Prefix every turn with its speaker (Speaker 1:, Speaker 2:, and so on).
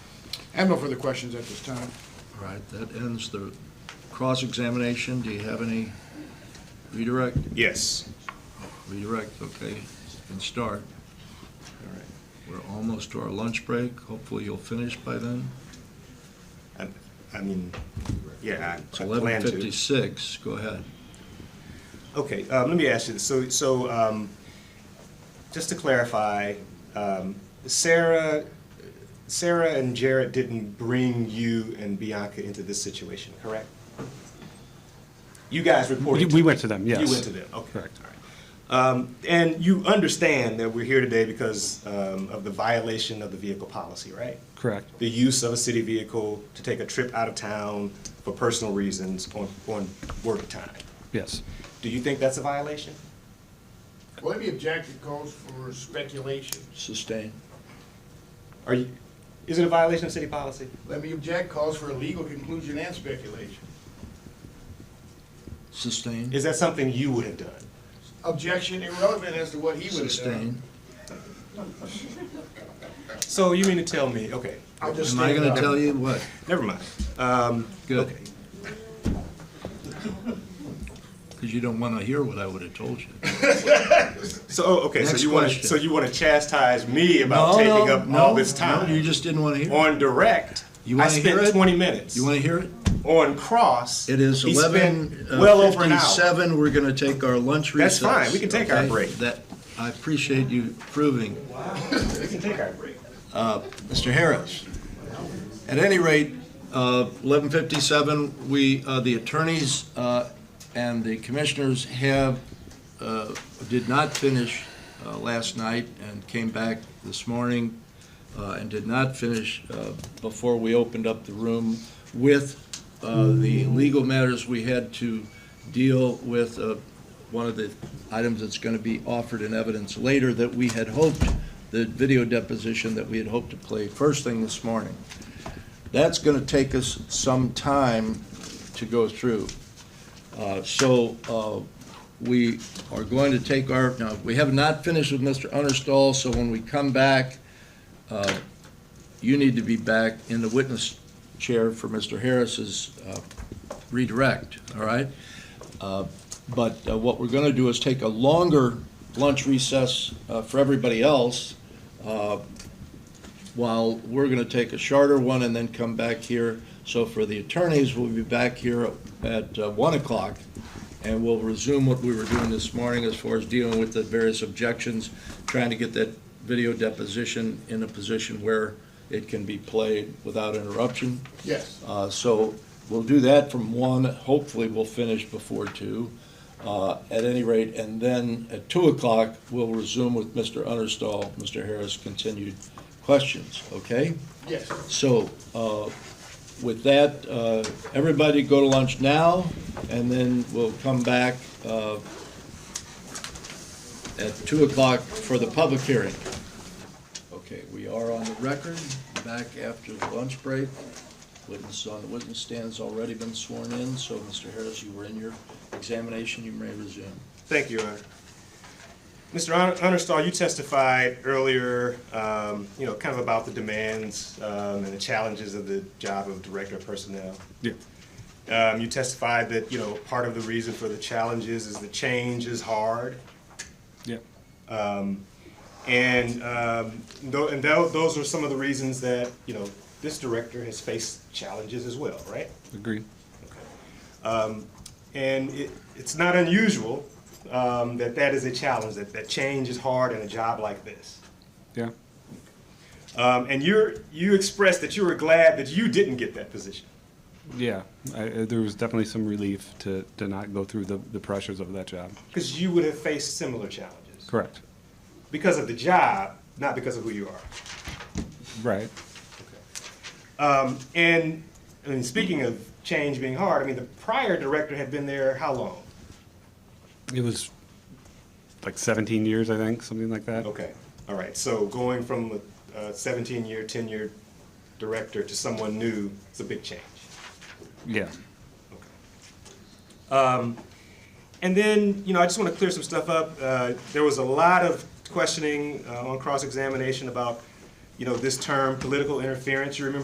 Speaker 1: I have no further questions at this time.
Speaker 2: All right, that ends the cross-examination. Do you have any redirect?
Speaker 3: Yes.
Speaker 2: Redirect, okay, and start.
Speaker 3: All right.
Speaker 2: We're almost to our lunch break. Hopefully you'll finish by then.
Speaker 3: I mean, yeah,
Speaker 2: It's
Speaker 3: I I plan to.
Speaker 2: 11:56, go ahead.
Speaker 3: Okay, um, let me ask you, this. so, so, um, just to clarify, um, Sarah, Sarah and Jared didn't bring you and Bianca into this situation, correct? You guys reported?
Speaker 4: We- we went to them, yes.
Speaker 3: You went to them, okay.
Speaker 4: Correct.
Speaker 3: all right. Um, and you understand that we're here today because, um, of the violation of the vehicle policy, right?
Speaker 4: Correct.
Speaker 3: the use of a city vehicle to take a trip out of town for personal reasons on, on work time.
Speaker 4: Yes.
Speaker 3: Do you think that's a violation?
Speaker 5: Well, let me object, it calls for speculation.
Speaker 2: Sustain.
Speaker 3: Are you, is it a violation of city policy?
Speaker 5: Let me object, calls for a legal conclusion and speculation.
Speaker 2: Sustain.
Speaker 3: Is that something you would have done?
Speaker 5: Objection irrelevant as to what he
Speaker 3: uh,
Speaker 5: would have done.
Speaker 2: Sustain.
Speaker 3: So you mean to tell me, okay,
Speaker 5: I'll just
Speaker 2: Am I
Speaker 5: stand
Speaker 2: going
Speaker 5: up.
Speaker 2: to tell you what?
Speaker 3: never mind. Um,
Speaker 2: Good. Because you don't want to hear what I would have told you.
Speaker 3: so, oh, okay, so
Speaker 2: Next
Speaker 3: you want to,
Speaker 2: question.
Speaker 3: so you want to chastise me about taking up all this
Speaker 2: No, you
Speaker 3: time?
Speaker 2: just didn't want to hear it.
Speaker 3: On direct,
Speaker 2: You
Speaker 3: I
Speaker 2: wanna hear
Speaker 3: spent
Speaker 2: it?
Speaker 3: twenty minutes.
Speaker 2: You want to hear it?
Speaker 3: On cross,
Speaker 2: It is
Speaker 3: he spent
Speaker 2: eleven uh,
Speaker 3: well over an hour.
Speaker 2: fifty-seven. We're going to take our lunch recess.
Speaker 3: That's fine. We can take our
Speaker 2: okay?
Speaker 3: break.
Speaker 2: That, I appreciate you proving.
Speaker 3: We can take our break.
Speaker 2: Mr. Harris. At any rate, uh, 1157, we, uh, the attorneys uh, and the commissioners have, uh, did not finish uh, last night and came back this morning uh, and did not finish uh, before we opened up the room with uh, the legal matters we had to deal with, uh, one of the items that's going to be offered in evidence later that we had hoped, the video deposition that we had hoped to play first thing this morning. That's going to take us some time to go through. Uh, So uh, we are going to take our, now, we have not finished with Mr. Understall, so when we come back, uh, you need to be back in the witness chair for Mr. Harris's uh, redirect, all right? Uh, But uh, what we're going to do is take a longer lunch recess uh, for everybody else, uh, while we're going to take a shorter one and then come back here. So for the attorneys, we'll be back here at uh, 1 o'clock, and we'll resume what we were doing this morning as far as dealing with the various objections, trying to get that video deposition in a position where it can be played without interruption.
Speaker 5: Yes.
Speaker 2: Uh, So we'll do that from one, hopefully we'll finish before two, uh, at any rate, and then at two o'clock, we'll resume with Mr. Understall, Mr. Harris, continued questions, okay?
Speaker 5: Yes.
Speaker 2: So uh, with that, uh, everybody go to lunch now, and then we'll come back uh, at two o'clock for the public hearing. Okay, we are on the record, back after the lunch break. Witness on the witness stand has already been sworn in, so Mr. Harris, you were in your examination, you may resume.
Speaker 3: Thank you, Your Honor. Mr. Hon- Honorstall, you testified earlier, um, you know, kind of about the demands um, and the challenges of the job of Director of Personnel.
Speaker 4: Yeah.
Speaker 3: Um, You testified that, you know, part of the reason for the challenges is the change is hard.
Speaker 4: Yeah.
Speaker 3: And, um, tho- and tho- those are some of the reasons that, you know, this director has faced challenges as well, right?
Speaker 4: Agree.
Speaker 3: Um, And it, it's not unusual um, that that is a challenge, that, that change is hard in a job like this.
Speaker 4: Yeah.
Speaker 3: Um, and you're, you expressed that you were glad that you didn't get that position.
Speaker 4: Yeah. I, I- there was definitely some relief to, to not go through the, the pressures of that job.
Speaker 3: Because you would have faced similar challenges.
Speaker 4: Correct.
Speaker 3: Because of the job, not because of who you are.
Speaker 4: Right.
Speaker 3: Um, and, I mean, speaking of change being hard, I mean, the prior director had been there how long?
Speaker 4: It was like 17 years, I think, something like that.
Speaker 3: Okay, all right, so going from a seventeen-year, tenured director to someone new is a big change.
Speaker 4: Yeah.
Speaker 3: Um, And then, you know, I just want to clear some stuff up. Uh, There was a lot of questioning uh, on cross-examination about, you know, this term, political interference. You remember